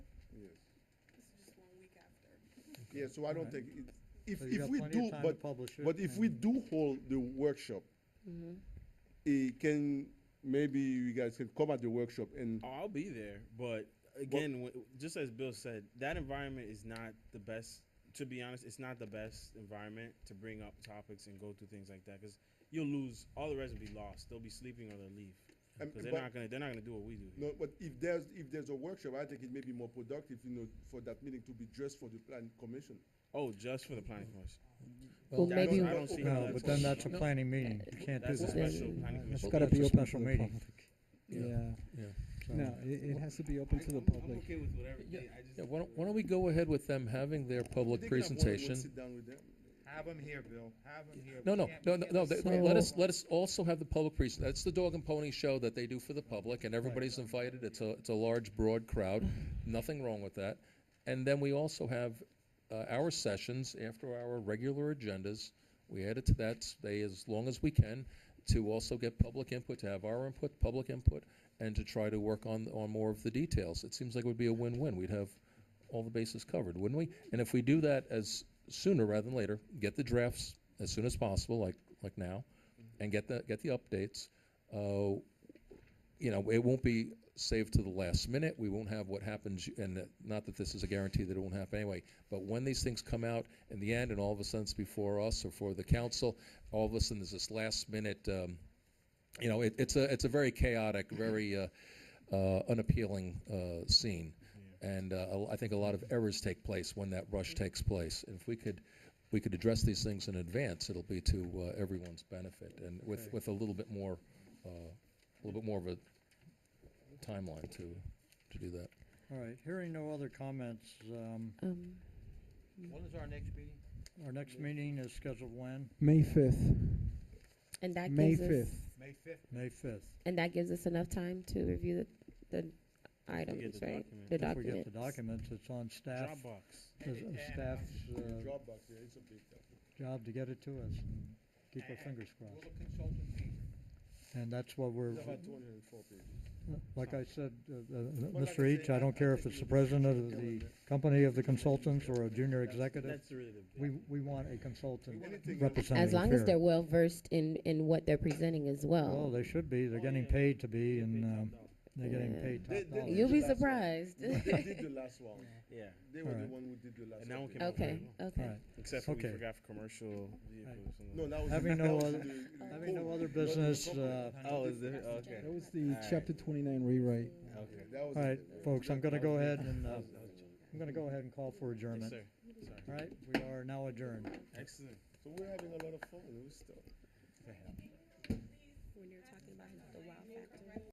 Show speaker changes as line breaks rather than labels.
Yeah, so I don't
Alright.
think, it- if,
So you
if
got
we
plenty of
do,
time to
but,
publish it
but if we
and- Mm-hmm.
do hold the workshop, it can, maybe you guys can come at the workshop and,
Uh,
Oh, I'll be there, but again, wh- just as Bill said, that environment is not the best. To be honest, it's not the best environment to bring up topics and go through things like that because you'll lose. All the rest will be lost. They'll be sleeping or they'll leave
Um,
because they're
but-
not gonna. They're not gonna do what we do. here.
no, but if there's, if there's a workshop, I think it may be more productive, you know, for that meeting to be just for the planning commission.
Oh, just for the planning commission.
Well,
Yeah, I don't-
maybe,
I don't see how
No, but then that's a
No,
planning meeting, you can't do
That's a
that.
that.
special planning
It's
commission.
gotta
That's
be a
open to
special
the
meeting.
Yeah,
Yeah. so-
no, it, it has to be open to the public.
okay with whatever.
Yeah, Yeah, why don't, why don't we go ahead with them having their
They
public
can have one-on-one
presentation?
Sit down with them.
Have them here, Bill. Have them here.
No,
We
no,
can't- we
no, no,
can't
no,
let
they-
them
let
go
us,
on.
let us also have the public present, that's the dog and pony show that they do for the public, and everybody's invited, it's a, it's a large, broad crowd, nothing wrong with that. And then we also have, uh, our sessions after our regular agendas, we add it to that, stay as long as we can, to also get public input, to have our input, public input, and to try to work on, on more of the details. It seems like it would be a win-win, we'd have all the bases covered, wouldn't we? And if we do that as sooner rather than later, get the drafts as soon as possible, like, like now, and get the, get the updates, uh, you know, it won't be saved to the last minute. We won't have what happens, and that- not that this is a guarantee that it won't happen anyway, but when these things come out in the end and all of a sudden it's before us or for the council, all of a sudden there's this last minute, um, you know, it, it's a, it's a very chaotic, very, uh, uh, unappealing, uh, scene. And, uh, I think a lot of errors take place when that rush takes place. If we could, we could address these things in advance, it'll be to, uh, everyone's benefit and with, with a little bit more, uh, a little bit more of a timeline to, to do that.
All right, hearing no other comments, um,
um,
When is our next meeting?
our next meeting is scheduled when?
May fifth,
and that
May
gives us,
fifth.
May fifth?
May fifth.
and that gives us enough time to review the, the items,
the
right?
document.
The
If we get
documents.
the documents, it's on staff,
Dropbox.
the- the staff's, uh,
Dropbox, yeah, it's a big thing.
job to get it to us and keep our fingers
Will the
crossed.
consultant be here?
And that's what we're,
It's about two hundred and four pages.
like I said, uh, uh,
like I
Mr. Each,
said,
I
I-
don't
I
care
think
if it's
you
the
should
president of
go
the
with it.
company of the consultants or a junior
That's-
executive.
That's really the.
We, we want a consultant
Anything else?
representing
As long as
here.
they're well versed in, in what they're presenting as
Well,
well.
they should be, they're
Oh,
getting
yeah.
paid to be
Yeah,
and,
big
um,
top dog.
they're getting
Yeah.
paid
They-
top
they-
dollar.
You'll be
That's right.
surprised.
They did the last one.
Yeah.
They were the
Alright.
one who did the last one.
And that one came out very
Okay,
well.
All
okay.
right.
Except for we
Okay.
forgot for commercial vehicles. and
No,
all that.
that was.
Having
that
no
was
other-
the- the
Having no
code.
other
Not in the
business,
corporate.
uh,
Oh, is it? Okay.
That was the
Alright.
chapter twenty-nine rewrite.
Okay.
That was
all right,
it.
folks, I'm gonna go ahead and, uh,
That was- that was a joke.
I'm gonna go ahead and call for
Yes,
adjournment.
sir. Sorry.
All right, we are now adjourned.
Excellent.
So we're having a lot of fun, it was stuff.